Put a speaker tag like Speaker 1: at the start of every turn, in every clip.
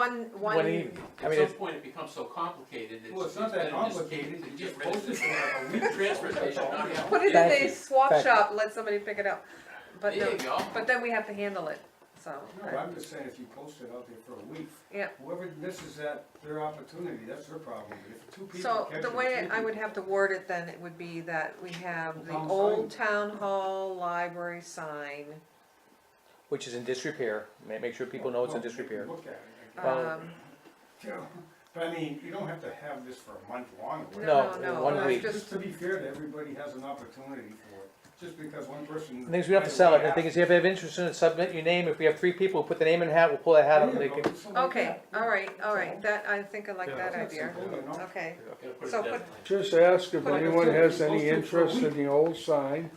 Speaker 1: One,
Speaker 2: What do you,
Speaker 1: one,
Speaker 2: I mean,
Speaker 3: At some
Speaker 2: it's,
Speaker 3: point, it becomes so complicated, it's.
Speaker 4: Well, it's not that
Speaker 3: better just
Speaker 4: complicated,
Speaker 3: get- get
Speaker 4: you just
Speaker 3: rid of
Speaker 4: post it
Speaker 3: it.
Speaker 4: for like a week.
Speaker 3: Transfer station, not have.
Speaker 1: put it in
Speaker 2: Thank
Speaker 1: a
Speaker 2: you.
Speaker 1: swap
Speaker 2: Thank you.
Speaker 1: shop, let somebody pick it up. But
Speaker 3: There
Speaker 1: no,
Speaker 3: you go.
Speaker 1: but then we have to handle it, so.
Speaker 4: No, I'm just saying, if you post it out there for a week.
Speaker 1: Yeah.
Speaker 4: Whoever misses that, their opportunity, that's their problem, but if two people
Speaker 1: So
Speaker 4: catch it.
Speaker 1: the way
Speaker 4: two
Speaker 1: I would
Speaker 4: people-
Speaker 1: have to word it then, it would be that we have the
Speaker 4: Town sign.
Speaker 1: old town hall library sign.
Speaker 2: which is in disrepair, ma- make sure people know it's in
Speaker 4: Well, they can
Speaker 2: disrepair.
Speaker 4: Look at it, I guess.
Speaker 2: Well,
Speaker 1: Um,
Speaker 4: You know, But I mean, you don't have to have this for a month long. or whatever.
Speaker 2: No,
Speaker 1: no,
Speaker 2: in
Speaker 1: no,
Speaker 2: one
Speaker 1: that's
Speaker 2: week.
Speaker 1: just-
Speaker 4: Just to be fair, that everybody has an opportunity for it, just because one person.
Speaker 2: The thing is, we don't have to sell it, the thing is, if you have interest in it, submit your name, if we have three people, put the name in the hat, we'll pull that hat out, and they can,
Speaker 1: Okay, all right, all right, that, I think I like
Speaker 5: Yeah.
Speaker 1: that idea, Uh, okay.
Speaker 3: Gotta put it
Speaker 1: So
Speaker 3: down.
Speaker 5: Just ask if
Speaker 1: Put it-
Speaker 5: anyone has any interest in the old sign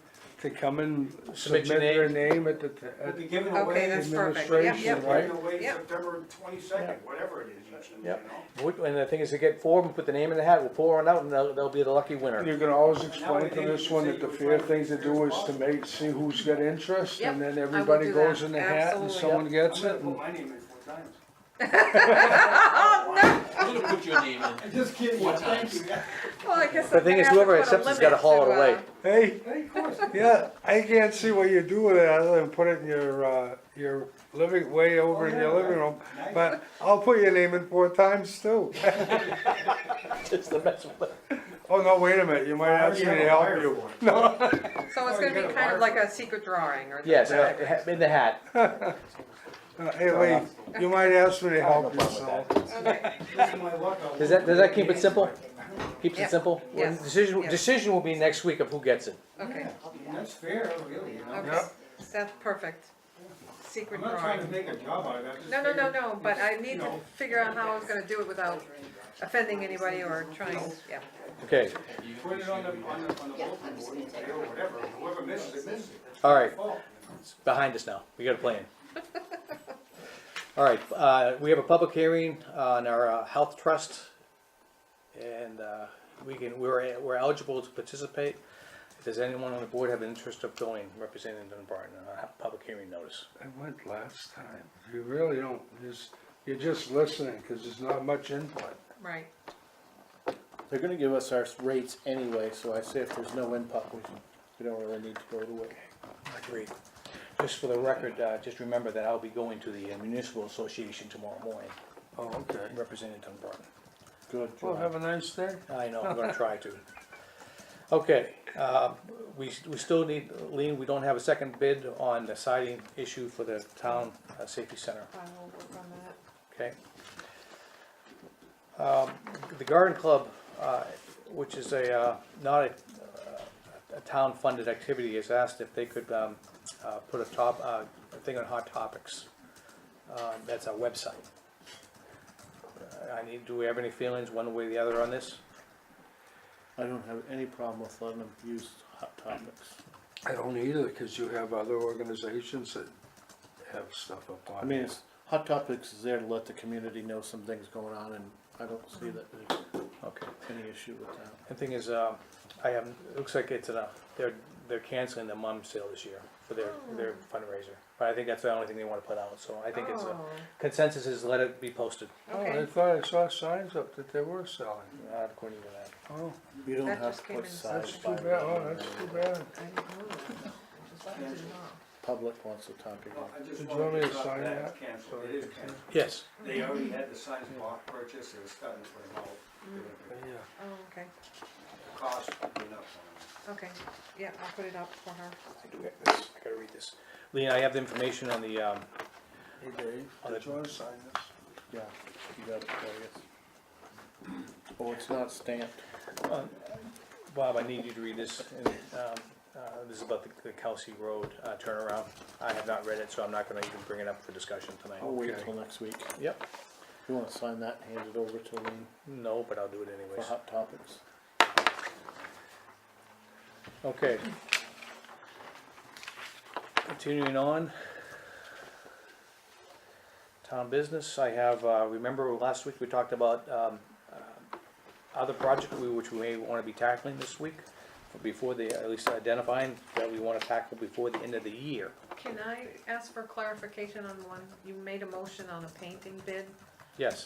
Speaker 5: to come and
Speaker 2: Submit
Speaker 5: submit
Speaker 2: your
Speaker 5: their name at the, t-
Speaker 4: We'll
Speaker 5: at
Speaker 4: be giving
Speaker 1: Okay,
Speaker 4: away.
Speaker 1: that's perfect. Yep,
Speaker 5: administration,
Speaker 1: yep.
Speaker 5: right?
Speaker 4: Giving away
Speaker 1: Yep.
Speaker 4: September twenty-second, whatever it is, you should, you know.
Speaker 2: Yep. Would- and the thing is, to get four of them, put the name in the hat, we'll pull one out, and they'll, they'll be the lucky winner.
Speaker 5: You can always explain to this one that the fair thing to do is to make, see who's got interest, and then
Speaker 1: Yep, I will
Speaker 5: everybody
Speaker 1: do
Speaker 5: goes
Speaker 1: that.
Speaker 5: in the hat and
Speaker 1: Absolutely.
Speaker 5: someone
Speaker 4: I'm
Speaker 5: gets
Speaker 4: gonna
Speaker 5: it.
Speaker 4: put
Speaker 5: and-
Speaker 4: my name in Oh, four times.
Speaker 3: I'm gonna put your name in.
Speaker 4: I'm just kidding,
Speaker 3: Four
Speaker 4: thank
Speaker 3: times.
Speaker 4: you.
Speaker 1: Well, I guess
Speaker 2: The
Speaker 1: I'm
Speaker 2: thing
Speaker 1: gonna
Speaker 2: is,
Speaker 1: have to
Speaker 2: whoever
Speaker 1: put a
Speaker 2: accepts has
Speaker 1: limit
Speaker 2: gotta haul
Speaker 1: to,
Speaker 2: it away.
Speaker 1: uh,
Speaker 5: Hey,
Speaker 4: Hey, Of course.
Speaker 5: yeah, I can't see what you do with it other than put it in your, uh, your living, way over in
Speaker 4: Oh,
Speaker 5: your
Speaker 4: yeah,
Speaker 5: living room,
Speaker 4: Nice.
Speaker 5: but I'll put your name in four times too.
Speaker 2: Just the mess with it.
Speaker 5: Oh, no, wait a minute, you might ask me
Speaker 4: You have
Speaker 5: to
Speaker 4: a
Speaker 5: help
Speaker 4: wire
Speaker 5: you.
Speaker 4: for it.
Speaker 1: So it's
Speaker 4: Oh, you
Speaker 1: gonna be
Speaker 4: gotta
Speaker 1: kind of
Speaker 4: wire
Speaker 1: like a secret drawing or.
Speaker 2: Yes, uh,
Speaker 1: whatever.
Speaker 2: ha- in the hat.
Speaker 5: Uh, Hey, Lee, you might ask me to
Speaker 2: I have no
Speaker 5: help you,
Speaker 2: problem
Speaker 5: so.
Speaker 2: with that.
Speaker 1: Okay,
Speaker 4: This is my luck, I'll
Speaker 2: Does that- does that keep it simple? Keeps
Speaker 1: Yeah.
Speaker 2: it simple. Well,
Speaker 1: Yes.
Speaker 2: Decision,
Speaker 1: Yes.
Speaker 2: decision will be next week of who gets it.
Speaker 1: okay,
Speaker 4: Yeah, I mean, That's fair, really, you know.
Speaker 1: okay,
Speaker 5: Yeah.
Speaker 1: that's perfect.
Speaker 4: I'm
Speaker 1: Secret
Speaker 4: not trying to
Speaker 1: drawing.
Speaker 4: make a job out of that.
Speaker 1: No, no, no, no, but I
Speaker 4: you
Speaker 1: need to
Speaker 4: know.
Speaker 1: figure out how I was gonna do it without offending anybody or trying, yeah.
Speaker 2: Okay,
Speaker 3: You-
Speaker 4: Put it on the, on the, on the bulletin board, you say, or whatever, whoever misses it, misses it. It's
Speaker 2: all
Speaker 4: their
Speaker 2: right,
Speaker 4: fault.
Speaker 2: behind us now. We got a plan. All right, uh, we have a public hearing on our uh, health trust. And, uh, we can, we're, we're eligible to participate. If there's anyone on the board have an interest of going, representing Dunbarton, uh, have a public hearing notice.
Speaker 5: I went last time. You really don't, just, you're just listening, cause there's not much input.
Speaker 1: Right,
Speaker 6: They're gonna give us our rates anyway, so I say if there's no input, we, we don't really need to go to it.
Speaker 2: Agreed. Just for the record, uh, just remember that I'll be going to the uh, municipal association tomorrow morning,
Speaker 5: Oh, okay.
Speaker 2: representing Dunbarton.
Speaker 6: Good,
Speaker 5: Well,
Speaker 6: John.
Speaker 5: have a nice day.
Speaker 2: I know, I'm gonna try to. Okay, um, we, we still need, Lean, we don't have a second bid on the siding issue for the town uh, safety center,
Speaker 1: I will work on that.
Speaker 2: okay? Um, The garden club, uh, which is a, uh, not a, a town-funded activity, has asked if they could um, uh, put a top, uh, a thing on Hot Topics. Uh, That's our website. Uh, I need, do we have any feelings one way or the other on this?
Speaker 6: I don't have any problem with letting them use hot topics.
Speaker 5: I don't either, cause you have other organizations that have stuff up on.
Speaker 6: I mean, it's, hot topics is there to let the community know some things going on, and I don't see that there's
Speaker 2: Okay.
Speaker 6: any issue with that.
Speaker 2: The thing is, um, I have, it looks like it's enough, they're, they're canceling the mum sale this year for their,
Speaker 5: Oh.
Speaker 2: their fundraiser. But I think that's the only thing they wanna put out, so I think it's, a-
Speaker 1: Oh,
Speaker 2: consensus is let it be posted,
Speaker 5: Oh, I
Speaker 1: Okay,
Speaker 5: thought I saw signs up that they were selling.
Speaker 2: uh, according to that.
Speaker 5: Oh,
Speaker 6: You don't
Speaker 1: That
Speaker 6: have
Speaker 1: just
Speaker 6: to
Speaker 1: came
Speaker 6: put
Speaker 1: in.
Speaker 6: size
Speaker 5: that's
Speaker 6: by
Speaker 5: too bad, oh, that's too bad.
Speaker 1: I don't know. Just wanted to know.
Speaker 6: Public wants to talk again.
Speaker 4: Well, I just
Speaker 5: Did you
Speaker 4: wanted
Speaker 5: want me to
Speaker 4: stop
Speaker 5: sign that?
Speaker 4: Cancel, it is canceled.
Speaker 2: Yes,
Speaker 4: They already had the signs block purchase, they were starting to put them out.
Speaker 5: Yeah,
Speaker 1: Oh, okay,
Speaker 4: The cost went up on them.
Speaker 1: okay, yeah, I'll put it up for her.
Speaker 2: I do have this, I gotta read this. Lean, I have the information on the, um,
Speaker 5: hey Dave, did you wanna sign this?
Speaker 6: Yeah, you got it, Claudius. Oh, it's not stamped.
Speaker 2: Bob, I need you to read this, and, um, uh, this is about the- the Kelsey Road uh, turnaround. I have not read it, so I'm not gonna even bring it up for discussion tonight.
Speaker 6: I'll wait
Speaker 5: Okay.
Speaker 6: till next week.
Speaker 2: Yep,
Speaker 6: You wanna sign that, and hand it over to Lean
Speaker 2: no, but I'll do it
Speaker 6: for
Speaker 2: anyways.
Speaker 6: hot topics.
Speaker 2: Okay. Continuing on. Town business, I have, uh, remember last week we talked about, um, uh, other project we, which we may wanna be tackling this week? Before the, at least identifying that we wanna tackle before the end of the year.
Speaker 1: Can I ask for clarification on one, you made a motion on a painting bid,
Speaker 2: Yes.